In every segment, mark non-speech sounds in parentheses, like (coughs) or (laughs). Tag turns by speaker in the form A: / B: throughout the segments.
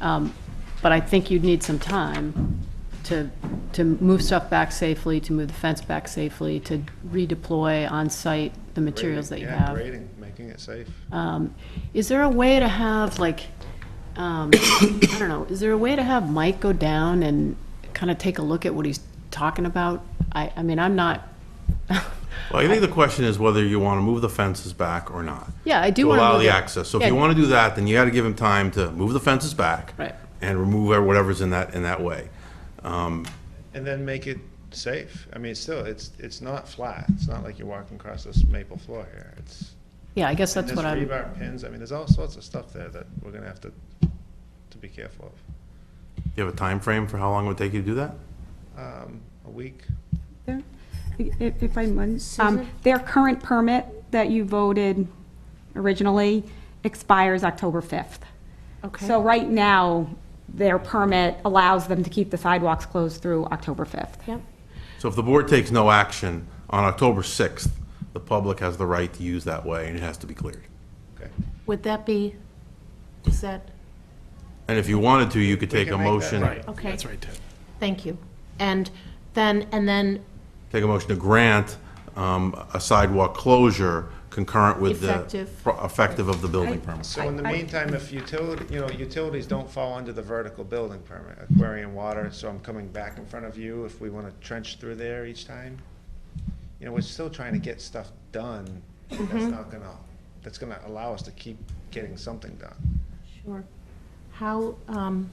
A: Um, But I think you'd need some time to, to move stuff back safely, to move the fence back safely, to redeploy on-site the materials that you
B: Grading, yeah,
A: have.
B: Grading, making it safe.
A: Um, Is there a way to have, like, um, (coughs) I don't know, is there a way to have Mike go down and kind of take a look at what he's talking about? I, I mean, I'm not, (laughs)
C: Well, I think the question is whether you want to move the fences back or not.
A: Yeah, I do wanna
C: allow
A: move
C: the
A: it.
C: access. So if
A: Yeah.
C: you want to do that, then you got to give him time to move the fences back.
A: Right.
C: And remove whatever's in that, in that way. Um,
B: And then make it safe. I mean, it's still, it's, it's not flat. It's not like you're walking across this maple floor here. It's,
A: yeah, I guess
B: and
A: that's
B: there's
A: what I'm,
B: rebar pins. I mean, there's all sorts of stuff there that we're gonna have to, to be careful of.
C: Do you have a time frame for how long it would take you to do that?
B: Um, a week,
D: There- If if I might, um, their current permit that you voted originally expires October 5th.
A: okay.
D: So right now, their permit allows them to keep the sidewalks closed through October 5th.
A: Yep.
C: So if the board takes no action on October 6th, the public has the right to use that way and it has to be cleared.
B: okay.
A: Would that be, is that,
C: And if you wanted to, you could take a
B: can make that
C: motion,
B: right.
A: okay.
E: That's right, Ted.
F: Thank you. And then, and then
C: take a motion to grant um, a sidewalk closure concurrent with the.
F: Effective.
C: pro- Effective of the building permit.
B: So in the meantime, if utility, you know, utilities don't fall under the vertical building permit, aquarium water, so I'm coming back in front of you if we wanna trench through there each time. You know, we're still trying to get stuff done. That's
F: Mm-hmm.
B: not gonna, that's gonna allow us to keep getting something done.
F: Sure. How, um,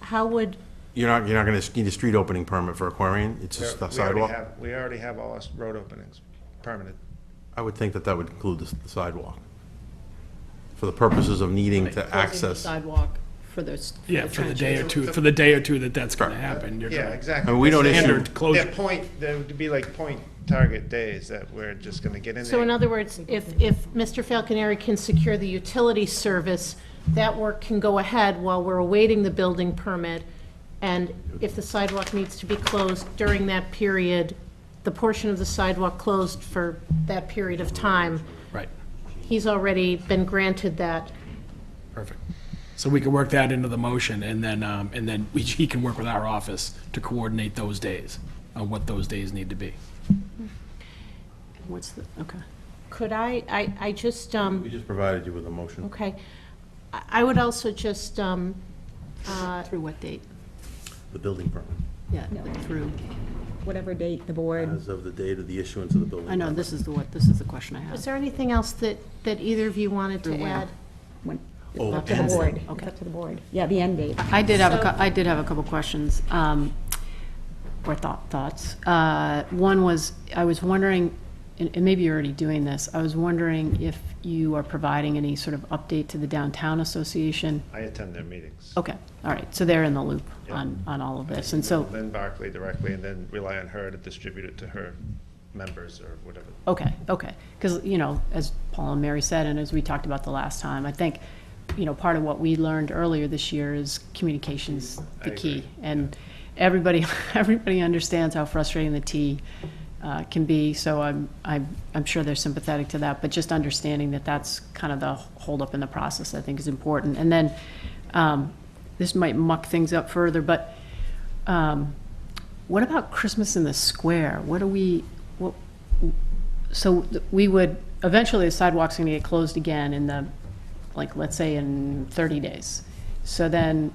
F: how would,
C: You're not, you're not going to need a street opening permit for Aquarian, it's just
B: We
C: a
B: already
C: sidewalk?
B: have- We already have all our road openings permitted.
C: I would think that that would include the s- the sidewalk, for the purposes of needing to access. I
A: Sidewalk for the. s-
E: Yeah, for the day or
A: trenches.
E: two, for the day or two that that's going to
C: Correct.
E: happen, you're
B: Yeah,
E: going to
B: exactly.
C: mean, we don't issue,
E: standard
B: Their
E: closure.
B: point, there would be like point target days that we're just gonna get in there.
F: so in other words, if, if Mr. Falconeri can secure the utility service, that work can go ahead while we're awaiting the building permit. And if the sidewalk needs to be closed during that period, the portion of the sidewalk closed for that period of time,
E: Right,
F: he's already been granted that.
E: perfect. So we can work that into the motion, and then, um, and then we- (laughs) he can work with our office to coordinate those days, on what those days need to be.
A: What's the, okay.
F: Could I, I, I just, um.
C: we just provided you with a motion.
F: Okay. I I would also just, um, uh,
A: Through what date?
C: The building permit,
A: Yeah, through,
D: Whatever date the board,
C: as of the date of the issuance of the building.
A: I know, this is the what, this is the question I
F: is
A: have.
F: there anything else that, that either of you wanted
A: Through
F: to
A: when?
F: add?
D: when-
C: Oh,
D: it's up to the
C: ends it.
D: board. It's
A: Okay.
D: up to the board. Yeah, the end date.
A: I did have a, cou- I did have a couple questions, um, or thought, thoughts. Uh, One was, I was wondering, and and maybe you're already doing this, I was wondering if you are providing any sort of update to the Downtown Association?
B: I attend their meetings.
A: Okay, all right, so they're in the loop on, on all of this, and so,
B: Lynn Barclay directly, and then rely on her to distribute it to her members or whatever.
A: Okay, okay. Because, you know, as Paul and Mary said, and as we talked about the last time, I think, you know, part of what we learned earlier this year is communication's the
B: I
A: key.
B: agree.
A: And everybody, (laughs) everybody understands how frustrating the T uh, can be, so I'm, I'm, I'm sure they're sympathetic to that. But just understanding that that's kind of the holdup in the process, I think, is important. And then, um, this might muck things up further, but um, what about Christmas in the Square? What do we, what, so th- we would, eventually the sidewalk's gonna get closed again in the, like, let's say in thirty days. So then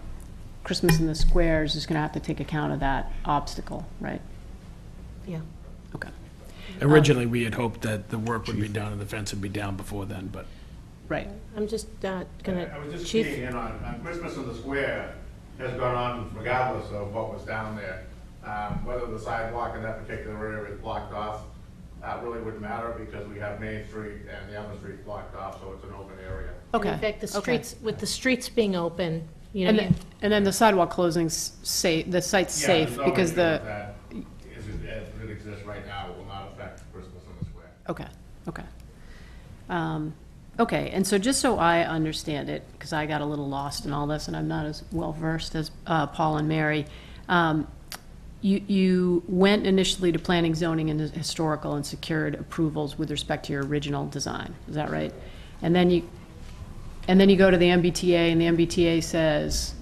A: Christmas in the squares is gonna have to take account of that obstacle, right?
F: Yeah.
A: Okay,
B: Um,
E: Originally, we had hoped that the work would be done and the fence would be down before then, but
A: right.
F: I'm just uh,
G: I
F: gonna,
G: was just
F: Chief?
G: keying in on, on Christmas in the Square has gone on regardless of what was down there. Um, Whether the sidewalk in that particular area is blocked off, that really wouldn't matter because we have Main Street and the other street blocked off, so it's an open area.
A: Okay.
F: In fact, the
A: okay.
F: streets, with the streets being open, you
A: And
F: know,
A: then, and then the sidewalk closing's safe, the site's
G: Yeah,
A: safe
G: there's no
A: because
G: issue with
A: the,
G: that. As it, as it exists right now, it will not affect Christmas in the Square.
A: okay, okay. Um, Okay, and so just so I understand it, because I got a little lost in all this and I'm not as well-versed as uh, Paul and Mary. um, You, you went initially to planning, zoning, and historical and secured approvals with respect to your original design, is that right? And then you, and then you go to the MBTA, and the MBTA says,